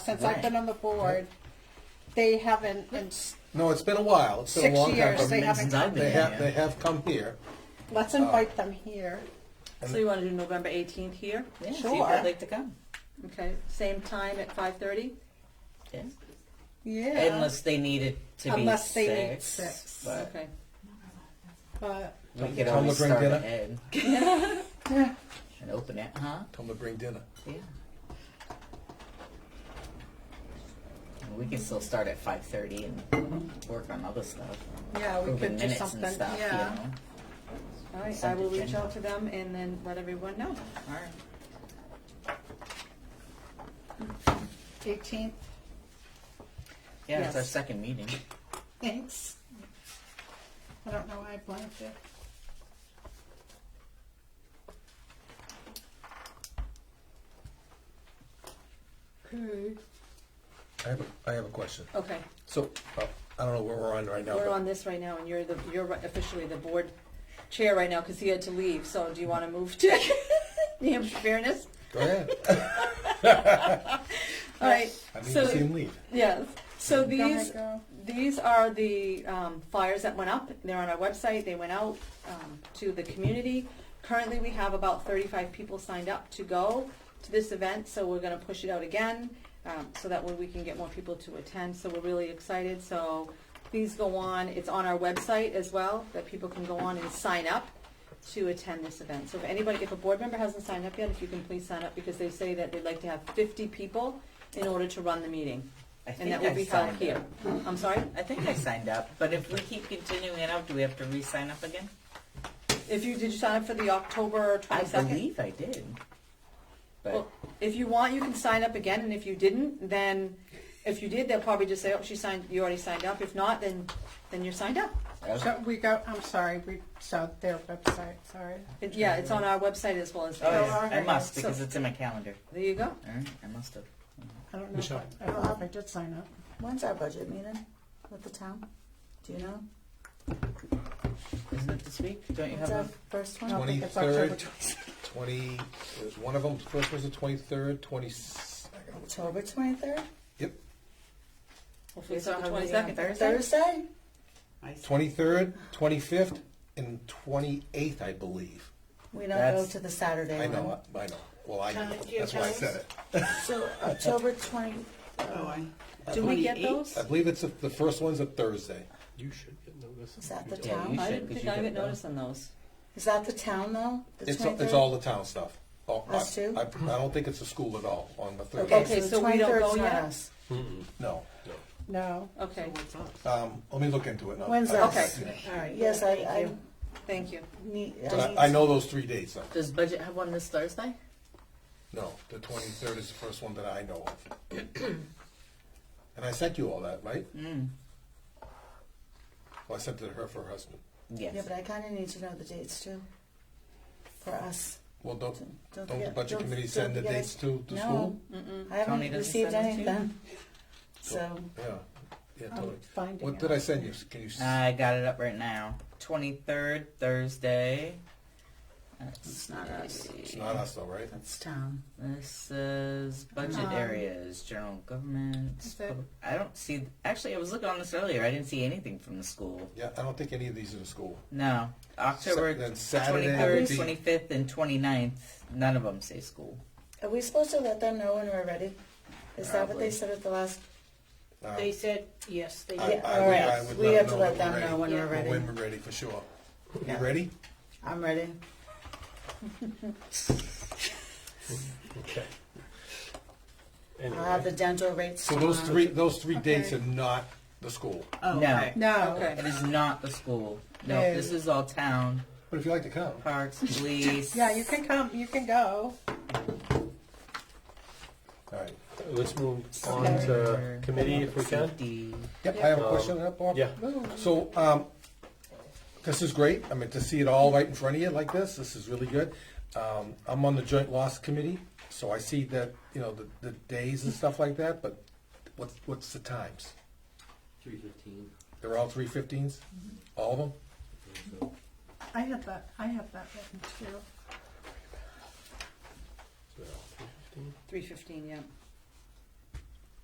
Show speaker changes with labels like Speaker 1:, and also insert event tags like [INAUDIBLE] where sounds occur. Speaker 1: since I've been on the board, they haven't, ins-
Speaker 2: No, it's been a while. It's been
Speaker 1: Six
Speaker 2: a long
Speaker 1: years,
Speaker 2: time.
Speaker 1: they
Speaker 2: coming.
Speaker 1: haven't
Speaker 3: Since I've
Speaker 1: come
Speaker 3: been
Speaker 2: They have, they
Speaker 3: here.
Speaker 2: have come here.
Speaker 1: let's invite them here.
Speaker 4: So you want to do November 18th here?
Speaker 3: Yeah, see
Speaker 1: Sure.
Speaker 3: if they'd like to come.
Speaker 4: Okay, same time at 5:30?
Speaker 3: Yeah.
Speaker 1: Yeah,
Speaker 3: Unless they need it to
Speaker 1: Unless
Speaker 3: be
Speaker 1: they need
Speaker 3: six.
Speaker 1: six.
Speaker 3: But
Speaker 4: Okay.
Speaker 1: but
Speaker 3: we could
Speaker 2: Tell 'em
Speaker 3: always
Speaker 2: to bring
Speaker 3: start
Speaker 2: dinner.
Speaker 3: ahead
Speaker 1: [LAUGHS]
Speaker 3: [LAUGHS] and open it, huh?
Speaker 2: Tell them to bring dinner.
Speaker 3: Yeah. And we can still start at five thirty and work on other stuff.
Speaker 1: yeah, we
Speaker 3: Moving
Speaker 1: could do
Speaker 3: minutes
Speaker 1: something,
Speaker 3: and stuff,
Speaker 1: yeah.
Speaker 3: you know.
Speaker 4: All right, I
Speaker 3: Consent
Speaker 4: will reach
Speaker 3: agenda.
Speaker 4: out to them and then let everyone know.
Speaker 3: All right.
Speaker 1: Eighteenth,
Speaker 3: Yeah, it's our
Speaker 1: Yes.
Speaker 3: second meeting.
Speaker 1: thanks. I don't know why I blanked it. Okay.
Speaker 2: I have a, I have a question.
Speaker 4: Okay,
Speaker 2: So, uh, I don't know where we're on right now.
Speaker 4: we're
Speaker 2: but
Speaker 4: on this right now, and you're the, you're officially the board chair right now, because he had to leave, so do you want to move to [LAUGHS] New Hampshire Fairness?
Speaker 2: Go ahead.
Speaker 1: [LAUGHS]
Speaker 4: All right,
Speaker 2: I need to see
Speaker 4: so,
Speaker 2: him leave.
Speaker 4: yes, so
Speaker 1: Go ahead,
Speaker 4: these,
Speaker 1: go.
Speaker 4: These are the um, flyers that went up. They're on our website. They went out um, to the community. Currently, we have about 35 people signed up to go to this event, so we're going to push it out again um, so that way we can get more people to attend. So we're really excited. So please go on. It's on our website as well that people can go on and sign up to attend this event. So if anybody, if a board member hasn't signed up yet, if you can please sign up because they say that they'd like to have 50 people in order to run the meeting.
Speaker 3: I
Speaker 4: And
Speaker 3: think
Speaker 4: that will
Speaker 3: I
Speaker 4: be held
Speaker 3: signed
Speaker 4: here.
Speaker 3: up.
Speaker 4: I'm sorry?
Speaker 3: I think I signed up, but if we keep continuing it out, do we have to re-sign up again?
Speaker 4: If you, did you sign up for the October
Speaker 3: I
Speaker 4: twenty-second?
Speaker 3: believe I did. But
Speaker 4: Well, if you want, you can sign up again, and if you didn't, then, if you did, they'll probably just say, oh, she signed, you already signed up. If not, then, then you're signed up.
Speaker 3: okay.
Speaker 1: So we go, I'm sorry, we, so their website, sorry.
Speaker 4: It- Yeah, it's on our website as well as,
Speaker 3: Oh,
Speaker 1: There
Speaker 3: yeah.
Speaker 1: are-
Speaker 3: I must
Speaker 4: so-
Speaker 3: because it's in my calendar.
Speaker 4: there you go.
Speaker 3: All right, I must have.
Speaker 1: I don't know, if I I don't know if I did sign up.
Speaker 5: When's our budget meeting with the town? Do you know?
Speaker 3: Isn't it this week? Don't you have?
Speaker 5: Is that
Speaker 3: a-
Speaker 5: first one?
Speaker 1: No. think it's October.
Speaker 2: Twenty-third, twenty, there's one of them, first was the twenty-third, twenty,
Speaker 5: October twenty-third?
Speaker 2: yep,
Speaker 4: Hopefully it's
Speaker 3: So
Speaker 4: on the
Speaker 3: how many on
Speaker 4: twenty-second.
Speaker 3: Thursday?
Speaker 5: Thursday?
Speaker 2: twenty-third, twenty-fifth, and twenty-eighth, I believe.
Speaker 5: We don't go
Speaker 3: That's-
Speaker 5: to the Saturday
Speaker 2: I
Speaker 5: one.
Speaker 2: know, I I know. Well, I,
Speaker 1: Can I do
Speaker 2: that's why I said it.
Speaker 5: So October twenty,
Speaker 2: Oh,
Speaker 4: Do we get
Speaker 3: 28th?
Speaker 4: those?
Speaker 2: I believe it's, the the first one's a Thursday.
Speaker 6: You should get notice.
Speaker 5: is that the
Speaker 3: Yeah, you
Speaker 5: town?
Speaker 4: I
Speaker 3: should,
Speaker 4: didn't
Speaker 3: 'cause
Speaker 4: think
Speaker 3: you
Speaker 4: I
Speaker 3: get
Speaker 4: got
Speaker 3: those.
Speaker 4: notice on those.
Speaker 5: Is that the town though? The
Speaker 2: It's, it's
Speaker 5: 23rd?
Speaker 2: all the town stuff. Oh, I-
Speaker 5: Us too?
Speaker 2: I, I don't think it's a school at all on the Thursday.
Speaker 4: Okay,
Speaker 5: Okay,
Speaker 4: so
Speaker 5: so the
Speaker 4: we don't go
Speaker 5: twenty-third's not
Speaker 4: yet?
Speaker 5: us.
Speaker 2: No.
Speaker 1: No.
Speaker 4: Okay,
Speaker 2: Um, let me look into it. and I'll-
Speaker 5: When's
Speaker 2: I'll-
Speaker 4: that?
Speaker 2: yeah.
Speaker 5: All right, yes, I, I
Speaker 4: thank you.
Speaker 5: need,
Speaker 2: But
Speaker 5: I need.
Speaker 2: I, I know those three dates though.
Speaker 3: Does budget have one this Thursday?
Speaker 2: No, the twenty-third is the first one that I know
Speaker 5: [CLEARS THROAT]
Speaker 2: of. And I sent you all that, right?
Speaker 3: Mm,
Speaker 2: Well, I sent it to her for her husband.
Speaker 3: Yes.
Speaker 5: Yeah, but I kinda need to know the dates too. For us.
Speaker 2: Well, don't, don't
Speaker 5: Don't
Speaker 2: the
Speaker 5: forget-
Speaker 2: budget
Speaker 5: don't-
Speaker 2: committee
Speaker 5: don't
Speaker 2: send the
Speaker 5: forget
Speaker 2: dates to, to
Speaker 5: No.
Speaker 2: school?
Speaker 5: I
Speaker 3: Tony
Speaker 5: haven't
Speaker 3: doesn't
Speaker 5: received
Speaker 3: send it to you?
Speaker 5: anything. So,
Speaker 2: Yeah, yeah,
Speaker 5: Um,
Speaker 2: totally.
Speaker 1: finding
Speaker 2: What did I send you? Can you? s-
Speaker 3: I got it up right now. Twenty third Thursday. That's
Speaker 5: it's not us.
Speaker 2: It's not us though, right?
Speaker 3: That's town. This is budget
Speaker 1: Um,
Speaker 3: areas, general government.
Speaker 1: is it-
Speaker 3: public- I don't see. Actually, I was looking on this earlier. I didn't see anything from the school.
Speaker 2: Yeah, I don't think any of these are the school.
Speaker 3: No, October
Speaker 2: then
Speaker 3: twenty
Speaker 2: Saturday
Speaker 3: third,
Speaker 2: would be-
Speaker 3: twenty fifth, and 29th, None of them say school.
Speaker 5: Are we supposed to let them know when we're ready? Is that what
Speaker 3: Probably.
Speaker 5: they said at the last?
Speaker 2: Uh,
Speaker 7: They said, yes, they
Speaker 2: I-
Speaker 7: did.
Speaker 5: Yeah,
Speaker 2: I
Speaker 5: all
Speaker 2: would-
Speaker 5: right.
Speaker 2: I would
Speaker 5: We
Speaker 2: let them
Speaker 5: have to
Speaker 2: know
Speaker 5: let them
Speaker 2: we're
Speaker 5: know when
Speaker 2: ready.
Speaker 5: we're ready.
Speaker 2: When we're ready, for sure. You
Speaker 5: Yeah.
Speaker 2: ready?
Speaker 5: I'm ready.
Speaker 6: Okay.
Speaker 5: I'll have the
Speaker 6: Anyway,
Speaker 5: dental rates
Speaker 2: So those
Speaker 5: tomorrow.
Speaker 2: three, those three dates are not the school.
Speaker 3: no,
Speaker 1: No.
Speaker 4: Okay.
Speaker 3: it is not the school. No,
Speaker 1: No.
Speaker 3: this is all town
Speaker 2: But if you like to come.
Speaker 3: parks,
Speaker 1: [LAUGHS]
Speaker 3: police.
Speaker 1: Yeah, you can come, you can go.
Speaker 2: All right.
Speaker 6: let's move on to committee if we can.
Speaker 3: Safety.
Speaker 2: Yep, I have a
Speaker 6: Um,
Speaker 2: question on that, Bob.
Speaker 6: Yeah,
Speaker 2: So, um, this is great. I mean, to see it all right in front of you like this, this is really good. Um, I'm on the joint loss committee, so I see that, you know, the, the days and stuff like that, but what's, what's the times?
Speaker 8: Three fifteen.
Speaker 2: They're all three fifteens?
Speaker 5: Mm-hmm.
Speaker 2: All of them?
Speaker 1: I have that, I have that written too.
Speaker 4: Three fifteen, yeah.